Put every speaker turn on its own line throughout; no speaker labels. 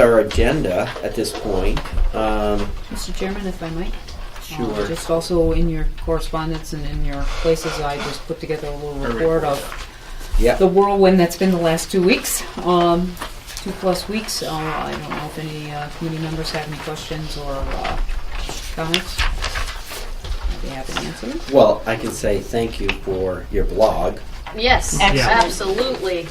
our agenda at this point. Um,
Mr. Chairman, if I might? uh,
Sure.
Just also in your correspondence and in your places, I just put together a little report of
yeah.
the whirlwind that's been the last two weeks, um, two plus weeks. Uh, I don't know if any uh, committee members have any questions or uh, comments. I'd be happy to answer them.
Well, I can say thank you for your blog.
Yes,
Excellent.
absolutely.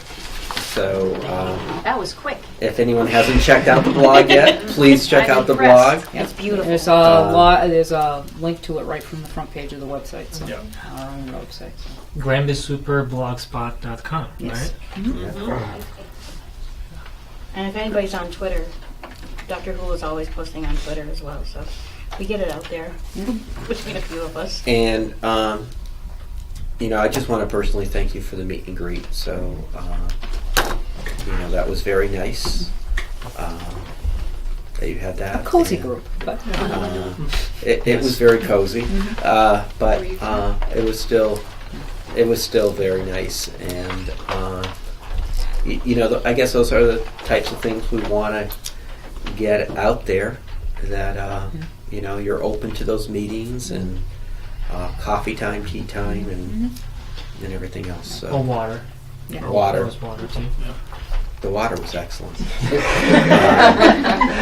So um,
That was quick.
if anyone hasn't checked out the blog yet, please check
I'm
out the blog.
impressed.
It's
beautiful.
There's a
Uh,
lot, there's a link to it right from the front page of the website, so,
Yeah.
our own website. so.
grandisuperblogspot.com,
Yes.
right?
And if anybody's on Twitter, Doctor Who is always posting on Twitter as well, so we get it out there between a few of us.
And, um, you know, I just want to personally thank you for the meet and greet. So, uh, you know, that was very nice um, that you had that.
A cozy
And,
group, but
Uh, it, it was very cozy, uh, but uh, it was still it was still very nice, and uh, y- you know th- I guess those are the types of things we want to get out there. That uh, you know you're open to those meetings and uh, coffee time, tea time, and and everything else. So
Or water.
Yeah.
Or
Water.
rose water too.
the water was excellent. Uh,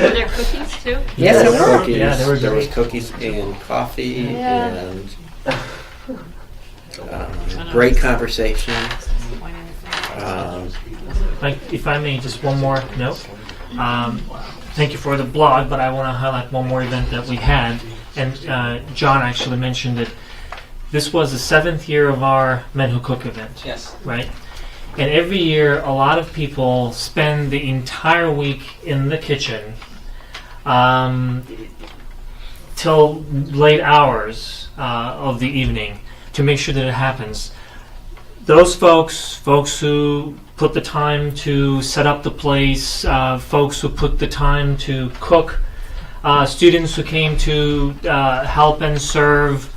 Were there cookies too?
Yes,
there
it
was
were.
Cookies,
Yeah, there were
there was
great.
cookies and coffee
Yeah.
and um, great conversation. Um,
Like, if I may, just one more note. Um, thank you for the blog, but I want to highlight one more event that we had, and uh, John actually mentioned it. This was the seventh year of our Men Who Cook event.
Yes.
right? And every year, a lot of people spend the entire week in the kitchen um, till late hours uh, of the evening to make sure that it happens. Those folks, folks who put the time to set up the place, uh, folks who put the time to cook, uh, students who came to uh, help and serve,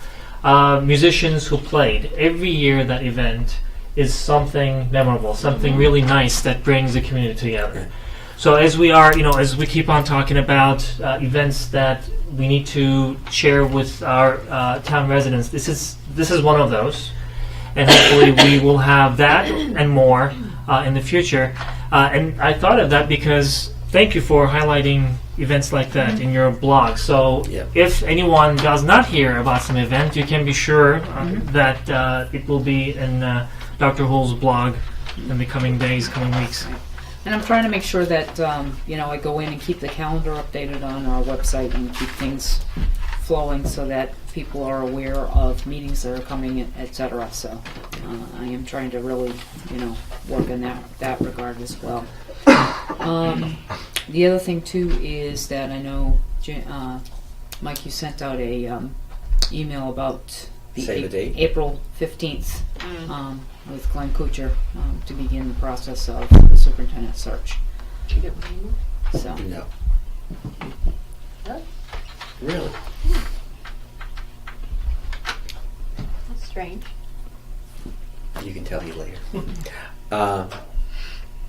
uh, musicians who played. Every year, that event is something memorable, something really nice that brings the community together. So as we are, you know, as we keep on talking about uh, events that we need to share with our uh, town residents, this is this is one of those, and hopefully we will have that and more uh, in the future. Uh, and I thought of that because thank you for highlighting events like that in your blog. So
Yeah.
if anyone does not hear about some event, you can be sure uh, that uh, it will be in uh, Dr. Hull's blog in the coming days, coming weeks.
And I'm trying to make sure that, um, you know, I go in and keep the calendar updated on our website and keep things flowing so that people are aware of meetings that are coming, et cetera. So uh, I am trying to really, you know, work in that, that regard as well. Um, the other thing too is that I know, Ja- uh, Mike, you sent out a, um, email about the
Save the date.
April 15th um, with Glenn Kuchar um, to begin the process of the superintendent search. So,
no. Really?
That's strange.
You can tell you later. Uh,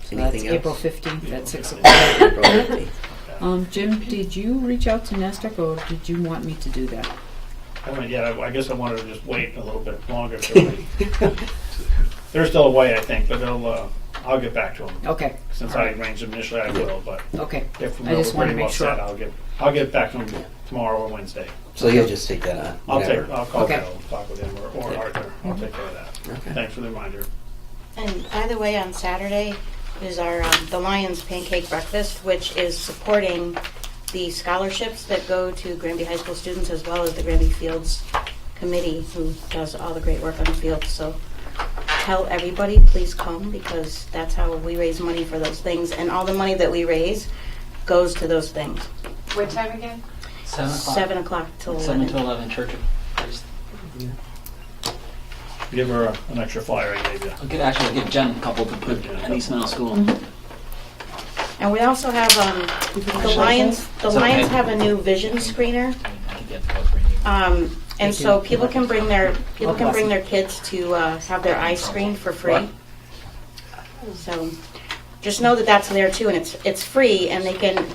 so that's
anything
April
else?
15th at 6 o'clock.
April 15th.
Um, Jim, did you reach out to Nasdaq or did you want me to do that?
Well, yeah, I- I guess I wanted to just wait a little bit longer. if they're waiting. They're still away, I think, but they'll, uh, I'll get back to them.
Okay,
Since I arranged them initially, I will, but
okay.
if
I
we're
just wanna
pretty
make
well set,
sure.
I'll get, I'll get back to them tomorrow or Wednesday.
So you'll just take that on.
I'll take,
whatever.
I'll call
Okay.
Bill and talk with him or- or Arthur. I'll take care of that.
Okay.
Thanks for the reminder.
And by the way, on Saturday is our um, the Lions Pancake Breakfast, which is supporting the scholarships that go to Granby High School students as well as the Granby Fields Committee, who does all the great work on the field. So tell everybody, please come because that's how we raise money for those things, and all the money that we raise goes to those things.
What time again?
Seven o'clock.
Seven o'clock till
Seven
eleven.
to eleven, Church of Christ.
Give her a- an extra flyer I gave you.
I'll give, actually, I'll give Jen a couple to put at East Middle School.
And we also have um, the Lions. The
It's okay.
Lions have a new vision screener.
I could get both for you.
Um, and so people can bring their, people can
bless
bring their kids to uh, have their eyes screened for free. So just know that that's there too, and it's, it's free, and they can,